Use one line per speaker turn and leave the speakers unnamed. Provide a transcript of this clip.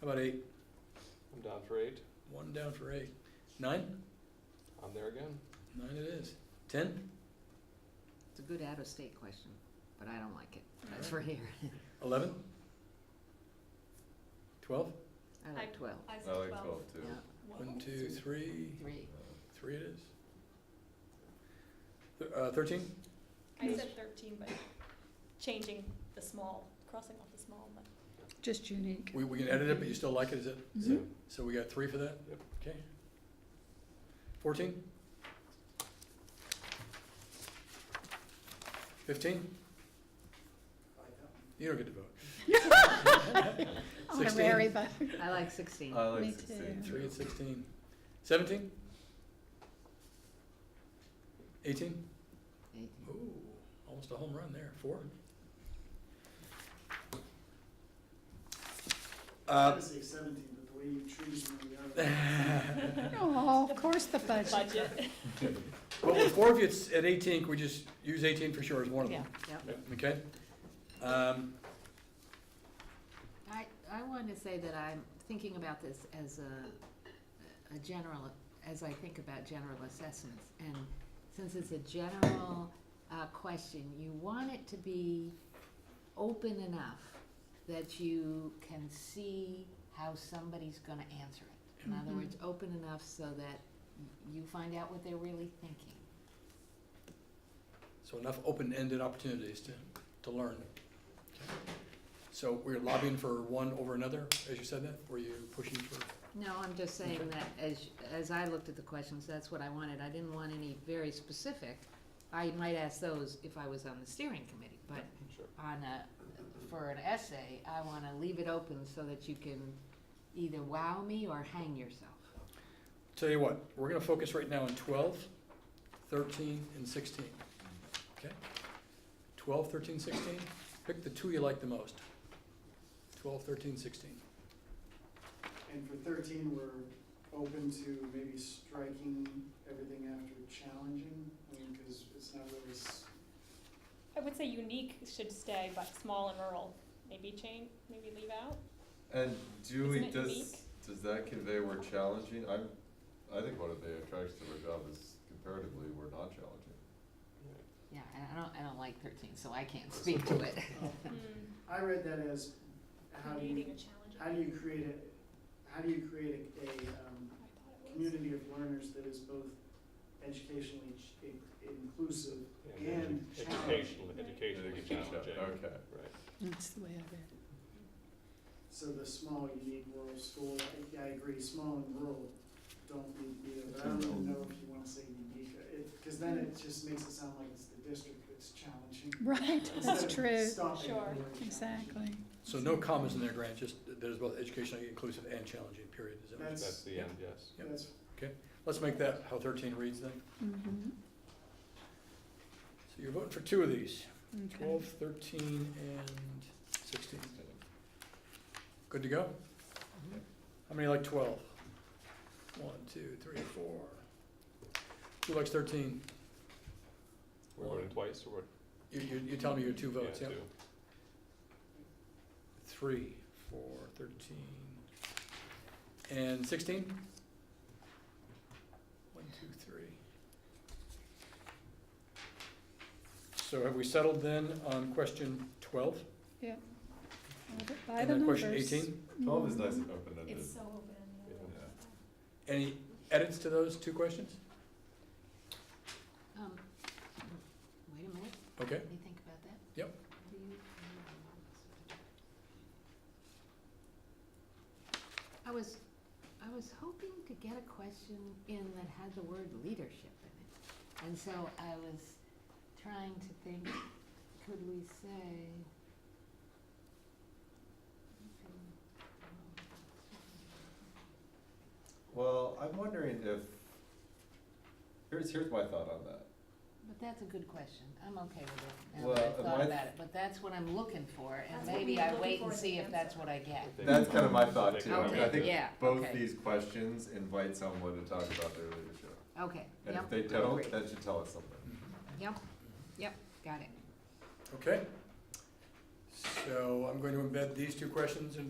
How about eight?
I'm down for eight.
One down for eight. Nine?
I'm there again.
Nine it is. Ten?
It's a good out-of-state question, but I don't like it. That's for here.
Eleven? Twelve?
I like twelve.
I
I
said
Oh, like
twelve.
twelve too.
Yeah,
One, two, three.
three.
Three it is. Th- Uh, thirteen?
I said thirteen, but changing the small, crossing off the small, but
Just unique.
We, we can edit it, but you still like it, is it?
So,
So we got three for that?
Yep.
Okay. Fourteen? Fifteen? You don't get to vote.
Honorary
Sixteen?
vote.
I like sixteen.
Uh,
I
Me
like sixteen
too.
Three
too.
and sixteen. Seventeen? Eighteen?
Eight.
Ooh, almost a home run there, four.
I
Uh,
would say seventeen, but the way you choose one or the other.
Well,
Oh, of course the budget.
budget.
with four of you, it's at eighteen, can we just use eighteen for sure as one of them,
Yep.
okay? Um,
I, I wanted to say that I'm thinking about this as a, a general, as I think about general assessments. And since it's a general, uh, question, you want it to be open enough that you can see how somebody's gonna answer it. In other
Mhm.
words, open enough so that you find out what they're really thinking.
so enough open-ended opportunities to, to learn. So we're lobbying for one over another, as you said that, were you pushing for?
No, I'm just saying that as, as I looked at the questions, that's what I wanted. I didn't want any very specific. I might ask those if I was on the steering committee, but
Sure.
on a, for an essay, I wanna leave it open so that you can either wow me or hang yourself.
Tell you what, we're gonna focus right now on 12, 13, and sixteen. Okay? 12, 13, 16. pick the two you like the most. 12, 13, 16.
And for thirteen, we're open to maybe striking everything after challenging, I mean, because it's not really, s-
I would say unique should stay, but small and rural, maybe change, maybe leave out.
And do we,
Isn't it unique?
does, does that convey we're challenging? I'm, I think one of the attractions of our job is comparatively, we're not challenging.
Yeah, and I don't, I don't like thirteen, so I can't speak to it.
Mm,
I read that as, how do you,
Creating a challenge.
how do you create a, how do you create a, um,
I thought it was.
community of learners that is both educationally ch- in- inclusive
edu-
and challenging?
educational,
Right.
educationally challenging.
Okay.
Right.
That's the way I read it.
So the small, unique rural school, I- I agree, small and rural don't need either, but I don't even know if you wanna say unique. It, cause then it just makes it sound like it's the district that's challenging.
Right,
Instead of
that's true.
stopping at
Sure.
the word challenging.
Exactly.
So no commas in there, Grant, just that there's both educationally inclusive and challenging, period. Is that what-
That's-
That's the end, yes.
Yep.
That's,
Let's make that how thirteen reads then.
Mhm.
So you're voting for two of these,
Okay.
12, 13, and sixteen. Good to go?
Yep.
How many like twelve? One, two, three, four. Who likes thirteen?
We're
One.
voting twice or what?
You, you, you tell me your two votes, yeah?
two.
Three, four, thirteen, and sixteen? One, two, three. So have we settled then on question twelve?
All the- By the
And then
numbers.
question eighteen?
Twelve is
Mhm.
nice and open-ended.
It's so open.
Yeah.
Yeah.
Any edits to those two questions?
Um, wait a minute,
Okay,
let me think about that.
Yep.
Do you- I was, I was hoping to get a question in that had the word leadership in it. And so I was trying to think, could we say?
Well, I'm wondering if, here's, here's my thought on that.
But that's a good question. I'm okay with it, now
Well,
that I've
my
thought
th-
about it, but that's what I'm looking for, and
That's what we
maybe
were
I
looking
wait
for
and
in
see
the
if that's
answer.
what I get.
I think
That's
we-
kind of my thought
think
too.
we
I mean, I
have
Okay,
think
yeah,
both
okay.
these questions invite someone to talk about their leadership.
Okay,
And
yep,
if they don't,
Agree.
that should tell us something.
yep, yep, got it.
okay. So I'm going to embed these two questions in